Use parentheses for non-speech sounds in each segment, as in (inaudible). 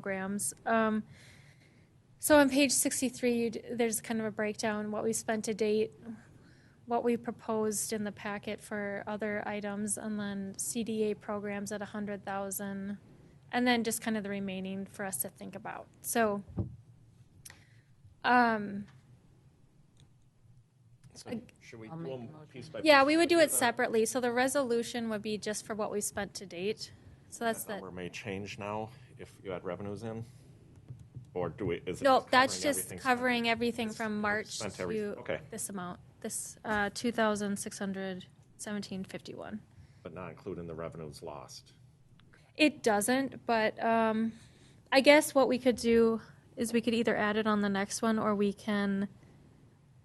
programs. Um, so on page 63, you d- there's kind of a breakdown, what we spent to date, what we proposed in the packet for other items, and then CDA programs at 100,000, and then just kind of the remaining for us to think about. So, um, So Should we, I'll make we'll the motion. piece by piece? yeah, we would do it separately. So the resolution would be just for what we spent to date. So that's the, That number may change now if you add revenues in? Or do we, is it? no, that's covering just everything spent? covering everything It's- from we've March spent everything. to Okay, this amount, this, uh, two thousand six hundred seventeen fifty-one. but not including the revenues lost. It doesn't, but, um, I guess what we could do is we could either add it on the next one or we can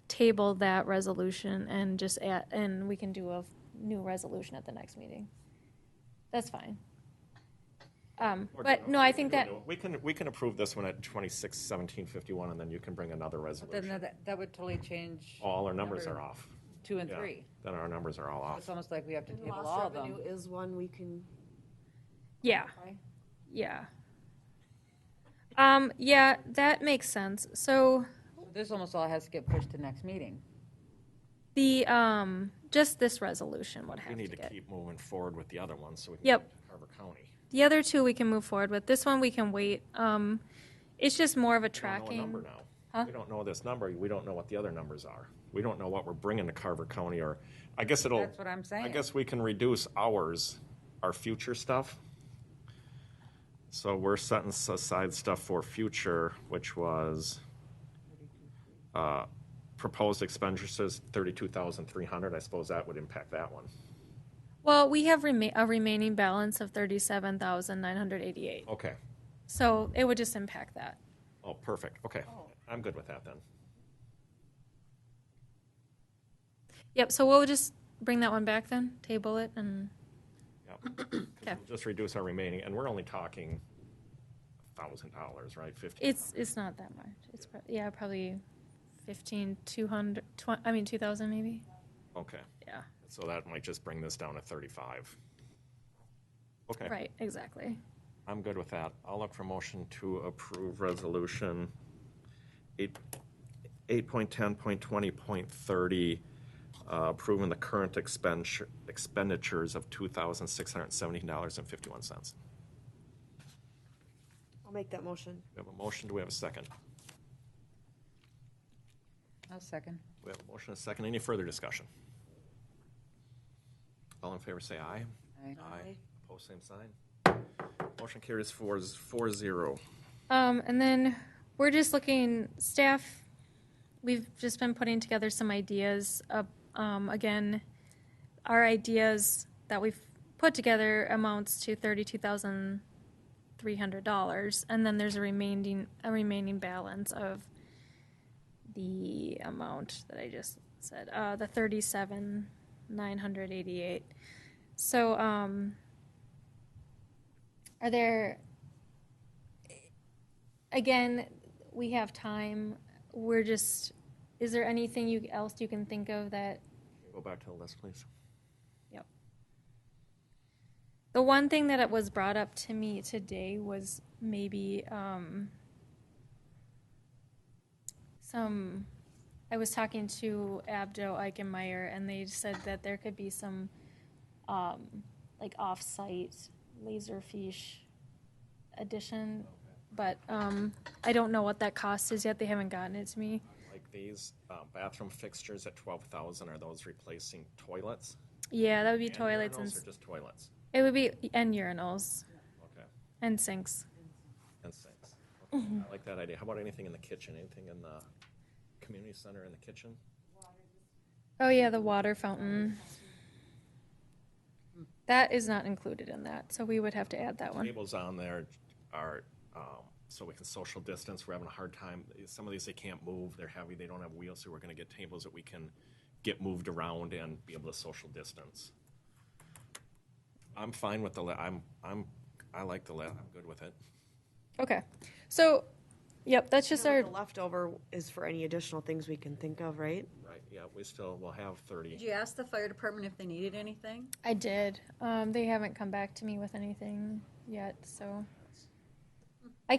table that resolution and just add, and we can do a new resolution at the next meeting. That's fine. Um, Or- but no, I think that, We can, we can approve this one at twenty-six, seventeen, fifty-one, and then you can bring another Then resolution. that, that would totally change All our numbers Number- are off. two and Oh, Yeah. Oh. three. Then our numbers are all It's off. almost like we have to And table lost all of them. revenue is one we can, yeah. Yeah. Um, yeah, that makes sense. So This almost all has to get pushed to next meeting. the, um, just this resolution would We have to need to get. keep moving forward with the other ones so we can. Yep. get to Carver County. The other two we can move forward with. This one we can wait. Um, it's just more of a We don't know a Number tracking. now. We don't know this number. We don't know what the other numbers are. We don't know what we're bringing to Carver County or, I guess it'll. That's what I'm I saying. guess we can reduce ours, our future stuff. So we're setting aside stuff for future, which was uh, proposed expenditures, thirty-two thousand three hundred. I suppose that would impact that one. Well, we have rema- a remaining balance of thirty-seven thousand nine hundred eighty-eight. Okay. So it would just impact that. Oh, perfect. Okay. I'm good with that then. Yep, so we'll just bring that one back then, table it and, (clears throat) Yep. 'Cause Okay. we'll Just reduce our remaining, and we're only talking thousand dollars, right? Fifteen. it's, it's not that much. It's, prob- yeah, probably fifteen, two hundred, twen- I mean, two thousand maybe? Okay. Yeah. So that might just bring this down to thirty-five. Okay. Right, exactly. I'm good with that. I'll look for motion to approve resolution eight, eight point ten, point twenty, point thirty, uh, approving the current expenditure, expenditures of two thousand six hundred and seventeen dollars and fifty-one cents. I'll make that motion. We have a motion, do we have a second? I'll second. We have a motion, and a second, any further discussion? All in favor, say aye. Aye. Aye. Opposed, same sign. Motion carries four, z- four zero. Um, and then we're just looking, staff, we've just been putting together some ideas. Of, um, again, our ideas that we've put together amounts to thirty-two thousand three hundred dollars, and then there's a remaining a remaining balance of the amount that I just said, uh, the thirty-seven nine hundred eighty-eight. So, um, are there again, we have time. We're just, is there anything you, else you can think of that, Go back to the list, please. yep. The one thing that it was brought up to me today was maybe, um, some, I was talking to Abdo Eichenmeyer and they said that there could be some, um, like off-site laserfish addition, but, um, I don't know what that cost is yet. They haven't gotten it to me. Like these, uh, bathroom fixtures at twelve thousand, are those replacing toilets? Yeah, that would be And toilets urinals and Or just toilets? it would be and urinals Okay, and sinks. (laughs) and sinks. Okay, I like that idea. How about anything in the kitchen? Anything in the community center in the kitchen? Oh yeah, the water fountain. That is not included in that, so we would have to add that one. Tables on there are, um, so we can social distance. We're having a hard time. Some of these, they can't move. They're heavy. They don't have wheels, so we're gonna get tables that we can get moved around and be able to social distance. I'm fine with the, la- I'm, I'm, I like the, la- I'm good with it. Okay, so, yep, that's just Now, our. The leftover is for any additional things we can think of, right? Right, yeah, we still, will have thirty. Did you ask the fire department if they needed anything? I did. Um, they haven't come back to me with anything yet, so